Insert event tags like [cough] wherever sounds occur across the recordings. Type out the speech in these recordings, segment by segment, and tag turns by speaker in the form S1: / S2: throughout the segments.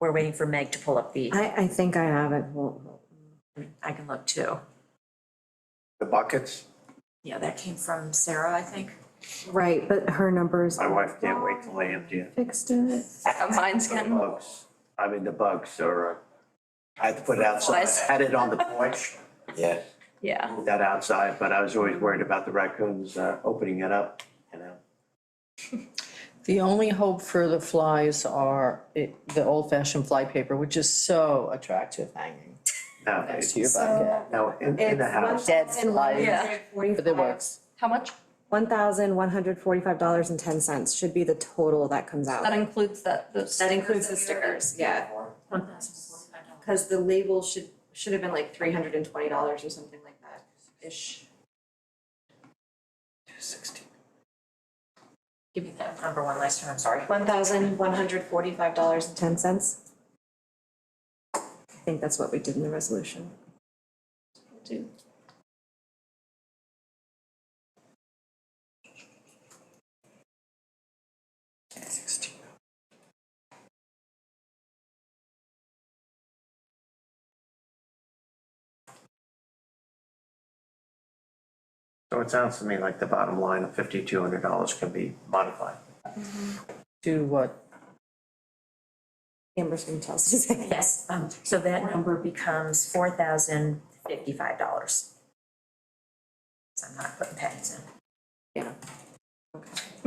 S1: We're waiting for Meg to pull up the,
S2: I, I think I have it, well,
S1: I can look too.
S3: The buckets,
S1: Yeah, that came from Sarah, I think.
S2: right, but her numbers
S3: my wife can't wait till they empty it.
S2: fixed it.
S4: Mine's
S3: The
S4: getting,
S3: bugs, I mean, the bugs are, uh, I had to put it outside,
S4: Flies.
S3: I had it on the porch. Yeah.
S4: yeah,
S3: Moved that outside, but I was always worried about the raccoons, uh, opening it up, you know?
S5: The only hope for the flies are it- the old-fashioned fly paper, which is so attractive hanging next to
S3: Nowadays,
S5: your bucket.
S3: now, in, in the house,
S5: Dead flies.
S4: Yeah.
S5: But it works.
S4: how much?
S2: One thousand one hundred forty-five dollars and ten cents should be the total that comes out.
S4: That includes that, those.
S6: That includes the
S4: stickers.
S6: stickers, yeah. Cause the label should, should have been like three hundred and twenty dollars or something like that, ish.
S1: Give me that number one last time, I'm sorry.
S6: One thousand one hundred forty-five dollars and ten cents.
S2: I think that's what we did in the resolution.
S3: so it sounds to me like the bottom line of fifty-two hundred dollars can be modified.
S5: Do what?
S2: Amber's gonna tell us.
S1: Yes, um, so that number becomes four thousand fifty-five dollars. So I'm not putting pennies
S2: Yeah.
S1: in.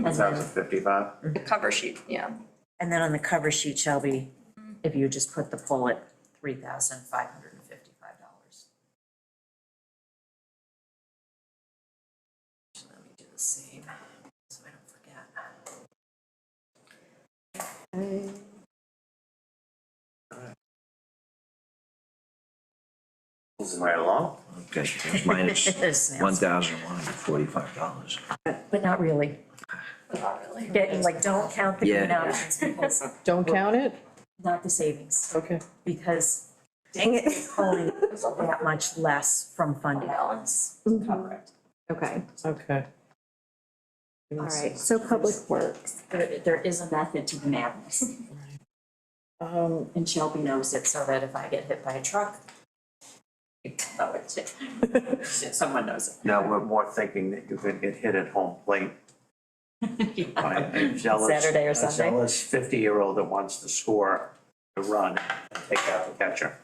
S1: And
S3: Thousand
S1: then,
S3: fifty-five?
S4: The cover sheet, yeah.
S1: and then on the cover sheet, Shelby, if you just put the poll at three thousand five hundred and fifty-five dollars. Let me do the same, so I don't forget.
S3: Moving right along.
S7: Okay, it's
S1: [laughs]
S7: minus
S1: Yes, ma'am.
S7: one thousand one hundred forty-five dollars.
S1: But not really.
S4: Not really.
S1: Get, like, don't count the green
S7: Yeah.
S1: options because,
S5: Don't count it?
S1: not the savings,
S5: Okay.
S1: because dang it, it's only that much less from fund balance.
S2: Okay,
S5: Okay.
S2: all right, so Public Works,
S1: There, there is a method to the madness,
S5: Um,
S1: and Shelby knows it, so that if I get hit by a truck, [laughs] you know it. [laughs] someone knows
S3: Now, we're more thinking that you could get hit at home plate
S1: it. [laughs]
S3: by a zealous.
S1: Saturday or
S3: a
S1: Sunday.
S3: zealous fifty-year-old that wants to score, to run, and take out the catcher.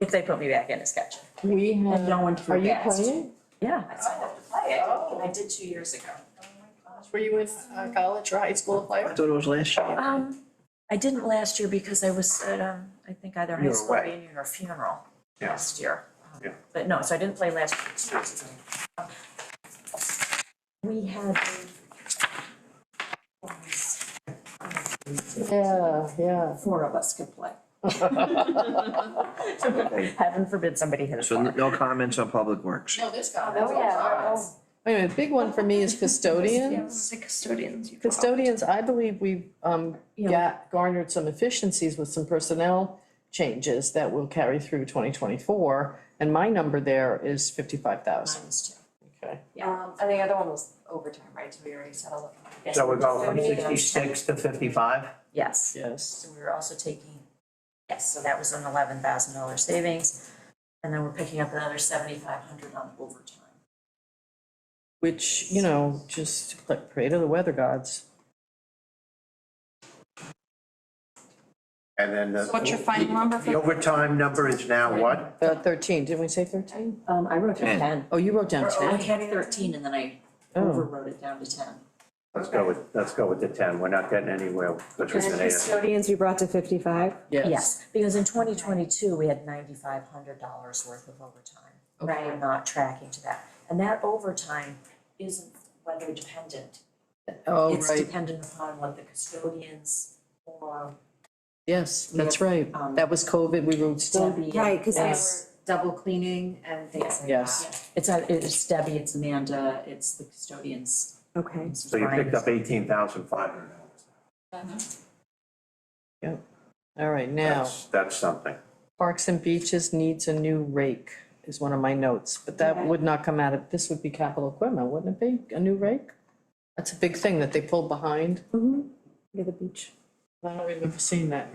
S1: If they put me back in as catcher.
S5: we have,
S1: no one
S5: are you
S1: forgets.
S5: playing?
S1: Yeah. I signed up to play it, I did two years ago.
S5: Were you in uh, college or high school
S7: I
S5: player?
S7: thought it was last year.
S1: Um, I didn't last year because I was at, um, I think either
S3: You
S1: high
S3: were
S1: school
S3: away.
S1: reunion or funeral
S3: Yeah.
S1: last year. Um,
S3: Yeah.
S1: But no, so I didn't play last year. Um, We had. um,
S5: Yeah, yeah.
S1: Four of us could
S5: [laughs]
S1: play. Heaven forbid somebody hit us.
S7: So n- no comments on public works.
S5: No, this guy. Oh, yeah. Wait a minute, big one for me is
S4: Yeah,
S5: custodian.
S4: the custodians. you-
S5: Custodians, I believe we, um, got garnered some efficiencies with some personnel changes that will carry through twenty twenty-four. And my number there is fifty-five thousand. Okay.
S6: Um, and the other one was overtime, right, so we already settled it.
S3: So we're going from sixty-six to fifty-five?
S1: Yes.
S5: Yes.
S1: So we were also taking, yes, so that was an eleven thousand dollar savings. And then we're picking up another seventy-five hundred on overtime.
S5: Which, you know, just like pray to the weather gods.
S3: And then the.
S4: So what's your final number for-
S3: The overtime number is now what?
S5: Uh, thirteen, didn't we say thirteen?
S1: Um, I wrote
S7: down
S1: ten.
S5: Oh, you wrote down
S1: Or I
S5: ten.
S1: had thirteen and then I
S5: Oh.
S1: overwrote it down to ten.
S3: Let's go with, let's go with the ten, we're not getting anywhere because we're gonna,
S2: custodians you brought to fifty-five?
S1: oh, Yes, because in twenty twenty-two, we had ninety-five hundred dollars worth of overtime. Right. We're not tracking to that, and that overtime isn't weather dependent.
S5: Oh,
S1: It's
S5: right,
S1: dependent upon what the custodians or
S5: yes, that's right.
S1: Um,
S5: That was COVID, we were still,
S1: Debbie.
S2: Right, 'cause they
S6: uh,
S1: Yes.
S6: Double cleaning and things like that.
S5: yes.
S1: It's, uh, it's Debbie, it's Amanda, it's the custodians.
S2: Okay,
S1: it's
S3: so you
S1: Brian.
S3: picked up eighteen thousand five hundred dollars.
S5: All right, now,
S3: That's, that's something.
S5: parks and beaches needs a new rake is one of my notes, but that would not come out of, this would be capital equipment, wouldn't it be? A new rake? That's a big thing that they pulled behind.
S2: Mm-hmm. near the beach.
S5: I don't remember seeing that.